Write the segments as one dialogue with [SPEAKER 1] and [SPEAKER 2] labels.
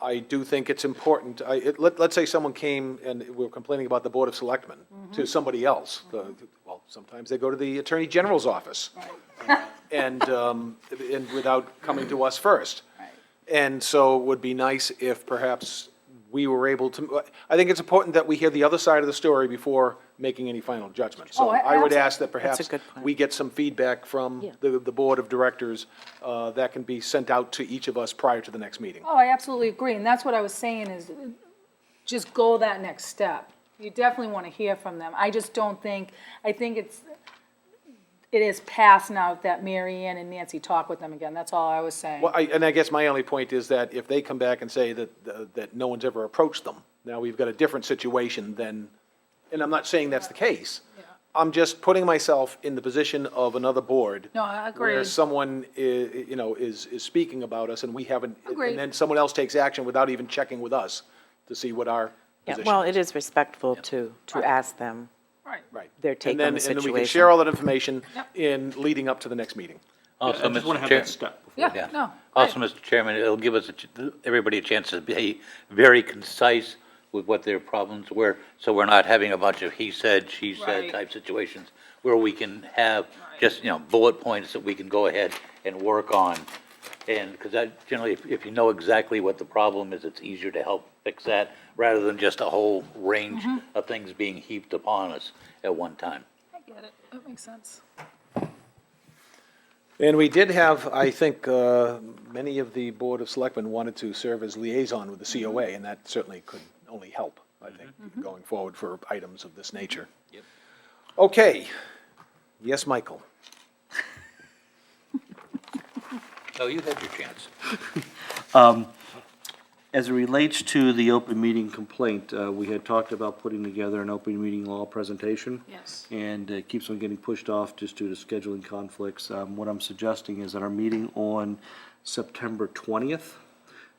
[SPEAKER 1] I do think it's important, I, it- let, let's say someone came and we were complaining about the Board of Selectmen
[SPEAKER 2] Mm-hmm.
[SPEAKER 1] to somebody else. The- Well, sometimes they go to the Attorney General's office. And, um, and without coming to us first.
[SPEAKER 3] Right.
[SPEAKER 1] And so it would be nice if perhaps we were able to, I think it's important that we hear the other side of the story before making any final judgment. So
[SPEAKER 3] Oh, I-
[SPEAKER 1] I would
[SPEAKER 3] absolutely.
[SPEAKER 1] ask that
[SPEAKER 2] That's a
[SPEAKER 1] perhaps
[SPEAKER 2] good point.
[SPEAKER 1] we get some feedback from
[SPEAKER 2] Yeah.
[SPEAKER 1] the, the Board of Directors uh, that can be sent out to each of us prior to the next meeting.
[SPEAKER 3] Oh, I absolutely agree, and that's what I was saying is, just go that next step. You definitely want to hear from them. I just don't think, I think it's, it is past now that Mary Ann and Nancy talk with them again, that's all I was saying.
[SPEAKER 1] Well, I, and I guess my only point is that if they come back and say that, uh, that no one's ever approached them, now we've got a different situation than, and I'm not saying that's the case. I'm just putting myself in the position of another board.
[SPEAKER 3] No, I agree.
[SPEAKER 1] Where someone i- i- you know, is, is speaking about us and we haven't.
[SPEAKER 3] Agreed.
[SPEAKER 1] And then someone else takes action without even checking with us to see what our
[SPEAKER 2] Yeah,
[SPEAKER 1] position.
[SPEAKER 2] well,
[SPEAKER 1] is.
[SPEAKER 2] it is respectful to, to ask them.
[SPEAKER 3] Right.
[SPEAKER 1] Right.
[SPEAKER 2] their
[SPEAKER 1] And
[SPEAKER 2] take on
[SPEAKER 1] then- And
[SPEAKER 2] the
[SPEAKER 1] then we can
[SPEAKER 2] situation.
[SPEAKER 1] share all that information
[SPEAKER 3] Yep.
[SPEAKER 1] in leading up to the next meeting.
[SPEAKER 4] Also,
[SPEAKER 5] I just want
[SPEAKER 4] Mr.
[SPEAKER 5] to have
[SPEAKER 4] Chair-
[SPEAKER 5] that step. before-
[SPEAKER 3] Yeah,
[SPEAKER 4] Yeah.
[SPEAKER 3] no.
[SPEAKER 4] Also,
[SPEAKER 3] great.
[SPEAKER 4] Mr. Chairman, it'll give us, a ch- everybody a chance to be very concise with what their problems were, so we're not having a bunch of he said, she
[SPEAKER 3] Right.
[SPEAKER 4] said type situations, where we can have
[SPEAKER 3] Right.
[SPEAKER 4] just, you know, bullet points that we can go ahead and work on. And, because that, generally, if- if you know exactly what the problem is, it's easier to help fix that, rather than just a whole range
[SPEAKER 3] Mm-hmm.
[SPEAKER 4] of things being heaped upon us at one time.
[SPEAKER 3] I get it, that makes sense.
[SPEAKER 1] And we did have, I think, uh, many of the Board of Selectmen wanted to serve as liaison with the COA, and that certainly could only help, I think, going forward for items of this nature. Yep. Okay. Yes, Michael?
[SPEAKER 4] No, you had your chance.
[SPEAKER 5] As it relates to the open meeting complaint, uh, we had talked about putting together an open meeting law presentation.
[SPEAKER 3] Yes.
[SPEAKER 5] And it keeps on getting pushed off just due to scheduling conflicts. Um, What I'm suggesting is that our meeting on September 20th,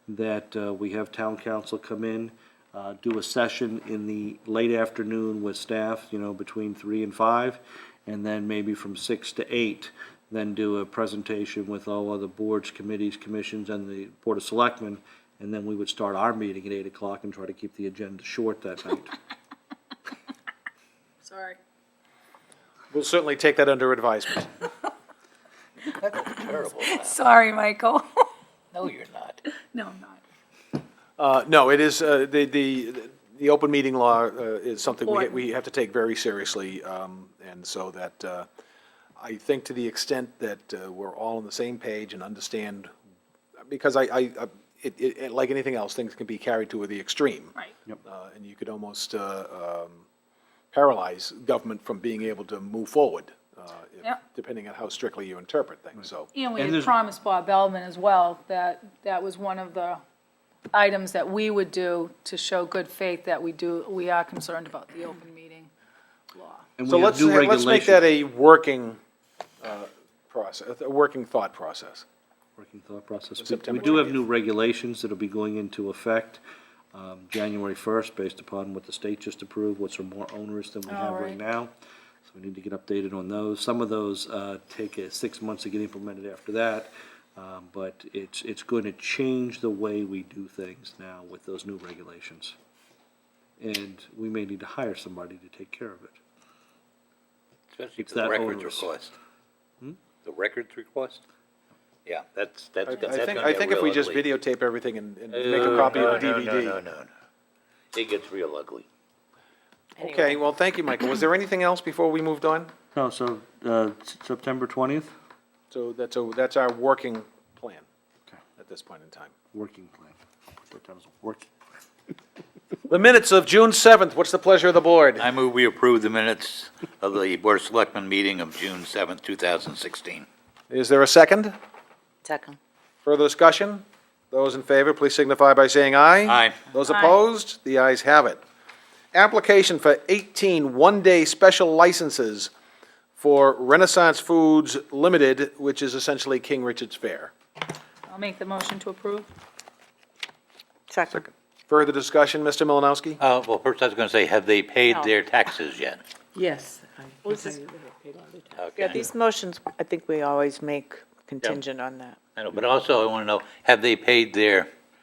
[SPEAKER 5] that uh, we have town council come in, uh, do a session in the late afternoon with staff, you know, between three and five, and then maybe from six to eight, then do a presentation with all other boards, committees, commissions, and the Board of Selectmen, and then we would start our meeting at eight o'clock and try to keep the agenda short that night.
[SPEAKER 3] Sorry.
[SPEAKER 1] We'll certainly take that under advisement.
[SPEAKER 3] Sorry, Michael.
[SPEAKER 4] No, you're not.
[SPEAKER 3] No, I'm not.
[SPEAKER 1] Uh, No, it is, uh, the, the, the open meeting law uh, is something we,
[SPEAKER 3] Important.
[SPEAKER 1] we have to take very seriously, um, and so that, uh, I think to the extent that uh, we're all on the same page and understand, because I, I, I- it, it, like anything else, things can be carried to the extreme.
[SPEAKER 3] Right.
[SPEAKER 1] Uh, And you could almost uh, um, paralyze government from being able to move forward, uh, if-
[SPEAKER 3] Yeah.
[SPEAKER 1] depending on how strictly you interpret things, so.
[SPEAKER 3] And we had
[SPEAKER 5] And there's-
[SPEAKER 3] promised Bob Bellman as well that that was one of the items that we would do to show good faith that we do, we are concerned about the open meeting law.
[SPEAKER 5] And
[SPEAKER 1] So
[SPEAKER 5] we have
[SPEAKER 1] let's,
[SPEAKER 5] new
[SPEAKER 1] ha- let's make
[SPEAKER 5] regulation-
[SPEAKER 1] that a working uh, process, a working thought process.
[SPEAKER 5] Working thought process. We-
[SPEAKER 1] September
[SPEAKER 5] We do have new regulations that'll be going into effect um, January 1st, based upon what the state just approved, which are more onerous than we have
[SPEAKER 3] Alright.
[SPEAKER 5] right now. So we need to get updated on those. Some of those uh, take uh, six months to get implemented after that, um, but it's, it's going to change the way we do things now with those new regulations. And we may need to hire somebody to take care of it.
[SPEAKER 4] Especially
[SPEAKER 5] It's
[SPEAKER 4] for the
[SPEAKER 5] that
[SPEAKER 4] records
[SPEAKER 5] onerous.
[SPEAKER 4] request. The records request? Yeah, that's, that's,
[SPEAKER 1] I I
[SPEAKER 4] that's gonna
[SPEAKER 1] think,
[SPEAKER 4] be
[SPEAKER 1] I think
[SPEAKER 4] a
[SPEAKER 1] if we
[SPEAKER 4] real
[SPEAKER 1] just
[SPEAKER 4] ugly-
[SPEAKER 1] videotape everything and and make a copy of a
[SPEAKER 4] No, no, no, no,
[SPEAKER 1] DVD.
[SPEAKER 4] no, no. It gets real ugly.
[SPEAKER 1] Okay, well, thank you, Michael. Was there anything else before we moved on?
[SPEAKER 5] No, so uh, S- September 20th,
[SPEAKER 1] So that's, a- that's our working plan
[SPEAKER 5] Okay.
[SPEAKER 1] at this point in time.
[SPEAKER 5] working plan. I'll put that down as a working.
[SPEAKER 1] The minutes of June 7th, what's the pleasure of the board?
[SPEAKER 4] I move we approve the minutes of the Board of Selectmen meeting of June seventh, two thousand sixteen.
[SPEAKER 1] Is there a second?
[SPEAKER 2] Second.
[SPEAKER 1] Further discussion? Those in favor, please signify by saying aye.
[SPEAKER 4] Aye.
[SPEAKER 1] Those opposed, the ayes have it. Application for 18 one-day special licenses for Renaissance Foods Limited, which is essentially King Richard's Fair.
[SPEAKER 3] I'll make the motion to approve.
[SPEAKER 2] Second.
[SPEAKER 1] Further discussion, Mr. Malinowski?
[SPEAKER 4] Uh, well, first I was gonna say, have they paid
[SPEAKER 2] No.
[SPEAKER 4] their taxes yet?
[SPEAKER 6] Yes. I can
[SPEAKER 2] this
[SPEAKER 6] tell
[SPEAKER 2] is-
[SPEAKER 6] you that I paid all the tax.
[SPEAKER 2] Yeah,
[SPEAKER 4] Okay.
[SPEAKER 2] these motions, I think we always make contingent on that.
[SPEAKER 4] I know, but also I wanna know, have they paid their